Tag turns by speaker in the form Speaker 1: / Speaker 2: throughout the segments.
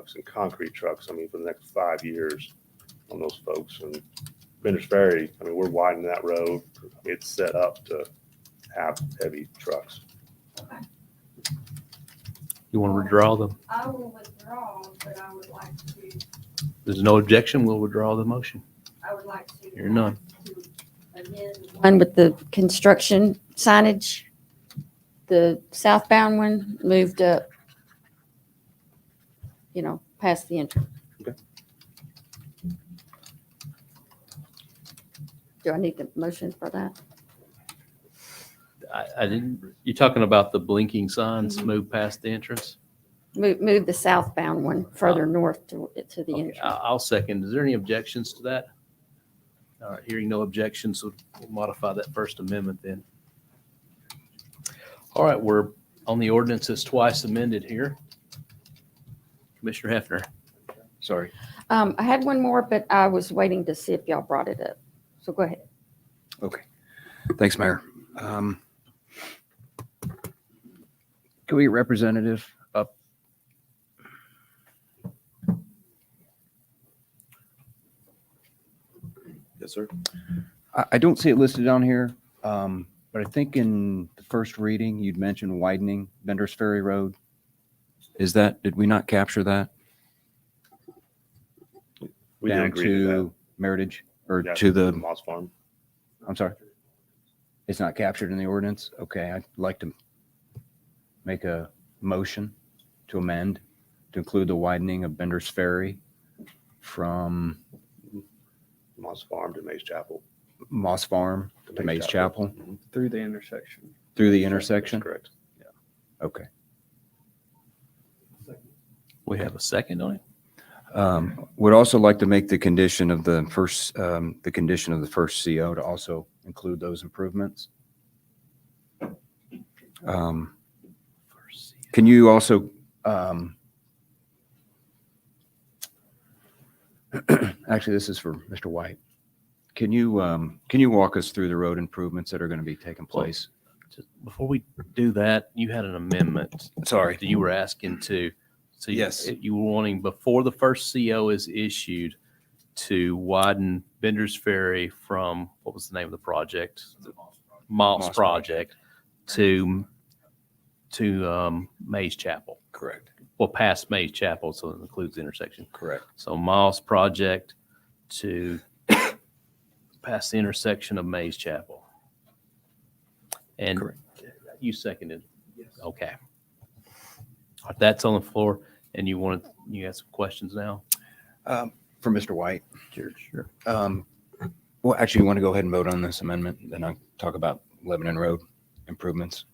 Speaker 1: trucks and concrete trucks, I mean, for the next five years on those folks. And Benders Ferry, I mean, we're widening that road. It's set up to have heavy trucks.
Speaker 2: You want to withdraw them?
Speaker 3: I will withdraw, but I would like to,
Speaker 2: There's no objection, we'll withdraw the motion.
Speaker 3: I would like to.
Speaker 2: Hear none.
Speaker 3: to amend
Speaker 4: One with the construction signage, the southbound one moved up, you know, past the entrance.
Speaker 1: Okay.
Speaker 4: Do I need the motion for that?
Speaker 2: I, I didn't, you're talking about the blinking
Speaker 4: Mm-hmm.
Speaker 2: signs move past the entrance?
Speaker 4: Move, move the southbound one further north to, to the
Speaker 2: Okay,
Speaker 4: entrance.
Speaker 2: I- I'll second. Is there any objections to that? All right, hearing no objections, we'll we'll modify that First Amendment then. All right, we're on the ordinances twice amended here. Commissioner Hefner, sorry.
Speaker 4: Um, I had one more, but I was waiting to see if y'all brought it up. So go ahead.
Speaker 5: Okay. Thanks, Mayor. Um, Can we get representative up?
Speaker 6: Yes, sir.
Speaker 5: I, I don't see it listed on here, um, but I think in the first reading, you'd mentioned widening Bender's Ferry Road. Is that, did we not capture that?
Speaker 1: We did
Speaker 5: down
Speaker 1: agree to that.
Speaker 5: Meritage or
Speaker 1: Yeah,
Speaker 5: to the,
Speaker 1: Moss Farm.
Speaker 5: I'm sorry. It's not captured in the ordinance? Okay, I'd like to make a motion to amend to include the widening of Bender's Ferry from
Speaker 1: Moss Farm to Mays Chapel.
Speaker 5: Moss Farm to Mays Chapel
Speaker 6: Through the intersection.
Speaker 5: through the
Speaker 1: That's
Speaker 5: intersection?
Speaker 1: Correct.
Speaker 5: Okay.
Speaker 2: We have a second on it?
Speaker 5: Um, Would also like to make the condition of the first, um, the condition of the first CO to also include those improvements. Um, Can you also, um, actually, this is for Mr. White. Can you, um, can you walk us through the road improvements that are going to be taking place?
Speaker 2: Just Before we do that, you had an amendment
Speaker 5: Sorry.
Speaker 2: that you were asking to. So you- eh,
Speaker 5: Yes.
Speaker 2: You were wanting before the first CO is issued to widen Bender's Ferry from, what was the name of the project? Moss
Speaker 5: Moss
Speaker 2: Project to, to um, Mays Chapel.
Speaker 5: Correct,
Speaker 2: Well, past Mays Chapel, so it includes the intersection.
Speaker 5: correct.
Speaker 2: So Moss Project to past the intersection of Mays Chapel. And
Speaker 5: Correct.
Speaker 2: you seconded? Okay. All right, That's on the floor, and you wanted, you have some questions now?
Speaker 5: Um, For Mr. White.
Speaker 2: Sure, sure.
Speaker 5: Um, well, actually, you want to go ahead and vote on this amendment, then I'll talk about Lebanon Road improvements.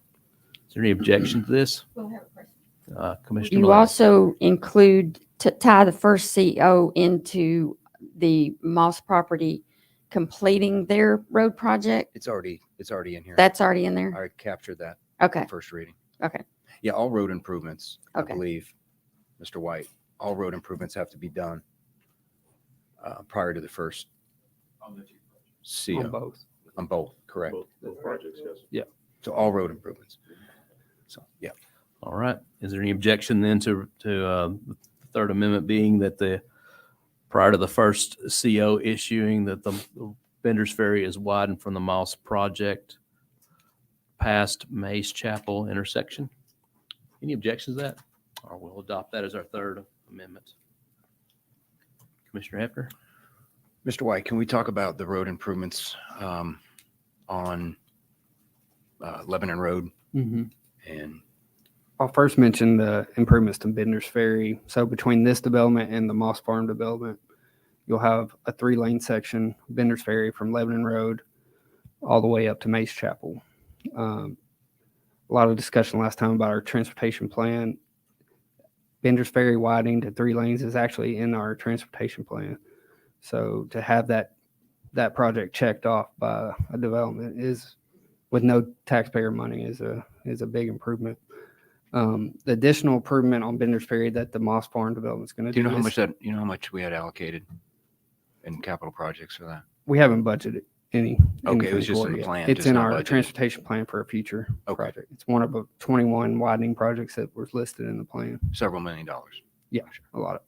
Speaker 2: Is there any objection to this,
Speaker 3: We'll have a question.
Speaker 2: Uh, Commissioner?
Speaker 4: You
Speaker 2: Malone?
Speaker 4: also include, to tie the first CO into the Moss property completing their road project?
Speaker 5: It's already, it's already in here.
Speaker 4: That's already in there?
Speaker 5: I captured that
Speaker 4: Okay,
Speaker 5: first reading.
Speaker 4: okay.
Speaker 5: Yeah, all road improvements, I
Speaker 4: Okay.
Speaker 5: believe, Mr. White, all road improvements have to be done uh, prior to the first
Speaker 6: On
Speaker 5: CO
Speaker 6: both.
Speaker 5: on both, correct?
Speaker 1: Both both projects, yes.
Speaker 5: So all road improvements. So, yeah.
Speaker 2: All right. Is there any objection then to, to uh, the Third Amendment being that the, prior to the first CO issuing, that the Bender's Ferry is widened from the Moss Project past Mays Chapel intersection? Any objections to that? Or we'll adopt that as our Third Amendment. Commissioner Hefner?
Speaker 5: Mr. White, can we talk about the road improvements um, on uh, Lebanon Road and
Speaker 6: I'll Mm-hmm. first mention the improvements to Bender's Ferry. So between this development and the Moss Farm development, you'll have a three-lane section, Bender's Ferry from Lebanon Road all the way up to Mace Chapel. Um, A lot of discussion last time about our transportation plan. Bender's Ferry widening to three lanes is actually in our transportation plan. So to have that, that project checked off by a development is, with no taxpayer money, is a, is a big improvement. Um, the additional improvement on Bender's Ferry that the Moss Farm development's gonna do.
Speaker 5: Do you know how
Speaker 6: is-
Speaker 5: much that, you know how much we had allocated in capital projects for that?
Speaker 6: We haven't budgeted any.
Speaker 5: Okay, it was
Speaker 6: anything
Speaker 5: just
Speaker 6: for
Speaker 5: in the
Speaker 6: yet.
Speaker 5: plan,
Speaker 6: It's
Speaker 5: just
Speaker 6: in
Speaker 5: not
Speaker 6: our
Speaker 5: budgeted.
Speaker 6: transportation plan for a future
Speaker 5: Okay.
Speaker 6: project. It's one of the twenty-one widening projects that was listed in the plan.
Speaker 5: Several million dollars.
Speaker 6: Yeah, sure. a lot of.